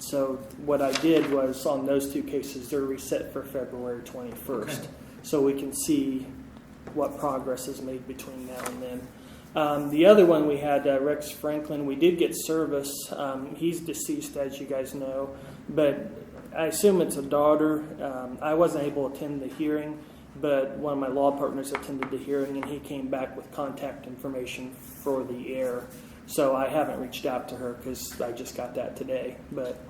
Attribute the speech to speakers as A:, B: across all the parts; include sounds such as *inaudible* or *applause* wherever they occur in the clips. A: So what I did was on those two cases, they're reset for February 21st.
B: Okay.
A: So we can see what progress is made between now and then. Um, the other one we had uh, Rex Franklin. We did get service. Um, he's deceased, as you guys know, but I assume it's a daughter. Um, I wasn't able to attend the hearing, but one of my law partners attended the hearing, and he came back with contact information for the heir. So I haven't reached out to her because I just got that today. But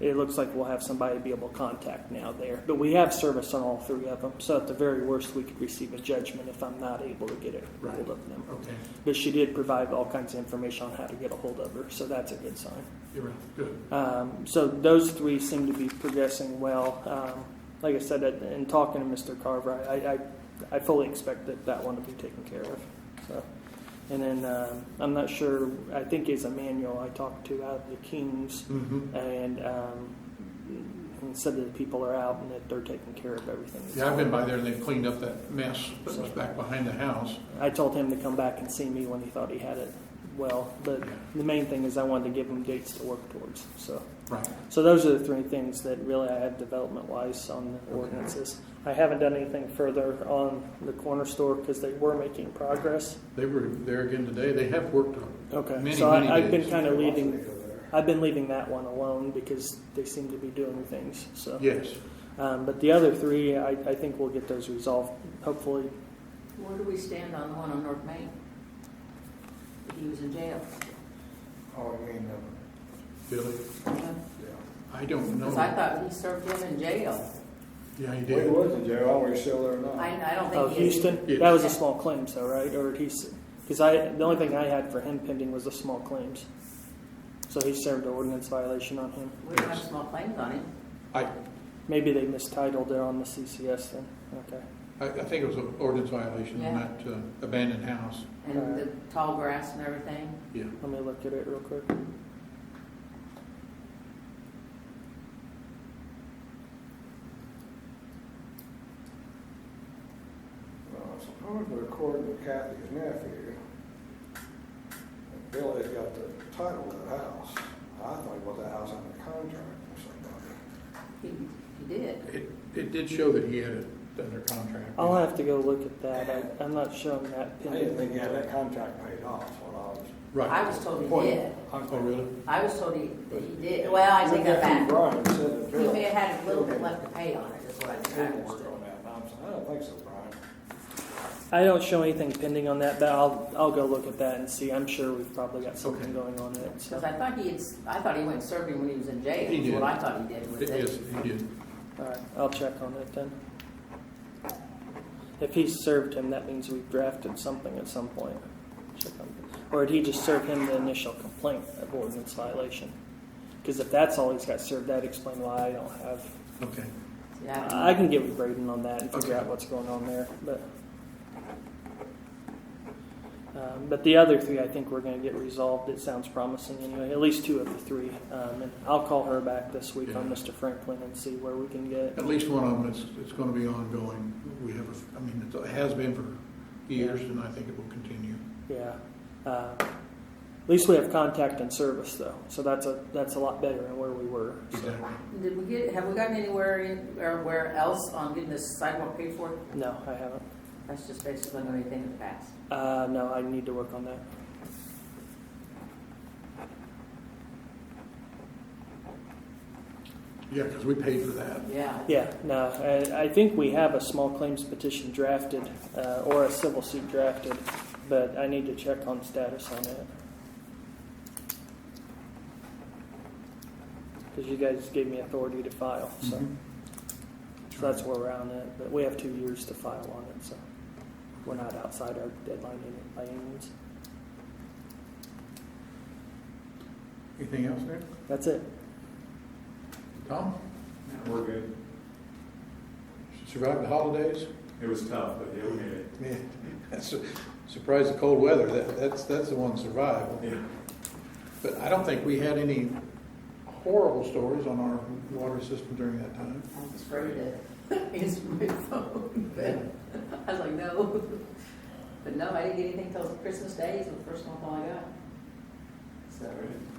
B: Okay.
A: it looks like we'll have somebody to be able to contact now there. But we have service on all three of them. So at the very worst, we could receive a judgment if I'm not able to get it
B: Right.
A: hold of them.
B: Okay.
A: But she did provide all kinds of information on how to get a hold of her, so that's a good sign.
B: You're right. Good.
A: Um, so those three seem to be progressing well. Um, like I said, in in talking to Mr. Carver, I, I, I fully expect that that one to be taken care of. So, and then um, I'm not sure. I think is Emmanuel I talked to out of the Kings,
B: Mm-hmm.
A: and um, and said that the people are out and that they're taking care of everything.
B: Yeah, I've been by there and they've cleaned up that mess that was back behind the house.
A: I told him to come back and see me when he thought he had it well. But the main thing is I wanted to give him dates to work towards. So,
B: Right.
A: so those are the three things that really I have development wise on the ordinances. I haven't done anything further on the corner store because they were making progress.
B: They were there again today. They have worked on it.
A: Okay,
B: Many,
A: so I,
B: many
A: I've been
B: days.
A: kind of leaving. I've been leaving that one alone because they seem to be doing things. So,
B: Yes.
A: um, but the other three, I, I think we'll get those resolved hopefully
C: Where do we stand on the one on North Main? He was in jail.
D: Oh, I mean,
B: Billy,
C: Because
D: yeah.
B: I don't
C: I
B: know.
C: thought he served him in jail.
B: Yeah, he
D: Well, he
B: did.
D: was in jail, I don't know if he's still there or
C: I,
D: not.
C: I don't
A: Oh,
C: think he is.
A: Houston?
B: Yes.
A: That was a small claims though, right? Or he's, because I, the only thing I had for him pending was a small claims. So he served an ordinance violation on him.
C: We don't have small claims on him.
B: I,
A: Maybe they mistitled it on the CCS then. Okay.
B: I, I think it was an ordinance violation on
C: Yeah.
B: that uh, abandoned house.
C: And the tall grass and everything.
B: Yeah.
A: Let me look at it real quick.
D: Well, Supposedly Uh, according to Kathy's nephew, Billy's got the title to the house. I thought he bought that house under contract or somebody.
C: He, he did.
B: It, it did show that he had it under contract.
A: I'll have to go look at that. I, I'm not showing that
D: I didn't think
A: pending.
D: he had that contract paid off when I was.
C: I
B: Right.
C: was told
D: Point.
C: he did.
B: Oh, really?
C: I was told he, that he did. Well, I take that back.
D: Brian said that
C: He
D: Bill.
C: may have had a little bit left to pay on it, is what I
D: He
C: understood.
D: didn't work on that, and I'm saying, I don't think so, Brian.
A: I don't show anything pending on that, but I'll, I'll go look at that and see. I'm sure we've probably got something
B: Okay.
A: going on in it. So,
C: Because I thought he had, I thought he went serving when he was in jail.
B: He
C: is
B: did.
C: What I thought he did was
B: It
C: that.
B: is, he did.
A: all right, I'll check on it then. If he served him, that means we've drafted something at some point. Check on Or did he just serve him the initial complaint of ordinance violation? Because if that's all he's got served, that explains why I don't have.
B: Okay.
C: Yeah.
A: I can get with Braden on that and figure
B: Okay.
A: out what's going on there, but. Um, but the other three, I think we're going to get resolved. It sounds promising anyway. At least two of the three, um, and I'll call her back this week on
B: Yeah.
A: Mr. Franklin and see where we can get.
B: At least one of them, it's, it's going to be ongoing. We have, a- I mean, it has been for years and I think it will continue.
A: Yeah. Uh, at least we have contact and service though, so that's a that's a lot better than where we were. So,
B: Exactly.
C: Did we get, have we gotten anywhere in, or where else on getting this sidewalk paid for?
A: no, I haven't.
C: That's just basically the only thing in the past.
A: Uh, no, I need to work on that.
B: Yeah, because we paid for that.
C: Yeah.
A: Yeah, no, I, I think we have a small claims petition drafted uh, or a civil suit drafted, but I need to check on status on it. Because you guys gave me authority to file, so,
B: Mhm.
A: so that's where we're at on it. But we have two years to file on it, so we're not outside our deadline in- by any means.
B: Anything else there?
A: That's it.
B: Tom?
E: We're good.
B: Survived the holidays?
E: It was tough, but yeah, we made it.
B: Yeah. That's a- Surprised the cold weather, that, that's, that's the one survival.
E: Yeah.
B: But I don't think we had any horrible stories on our water system during that time.
C: I was afraid *laughs* to answer my phone, but I was like, no. But no, I didn't get anything till Christmas Day is the first phone call I got. So,
E: All right.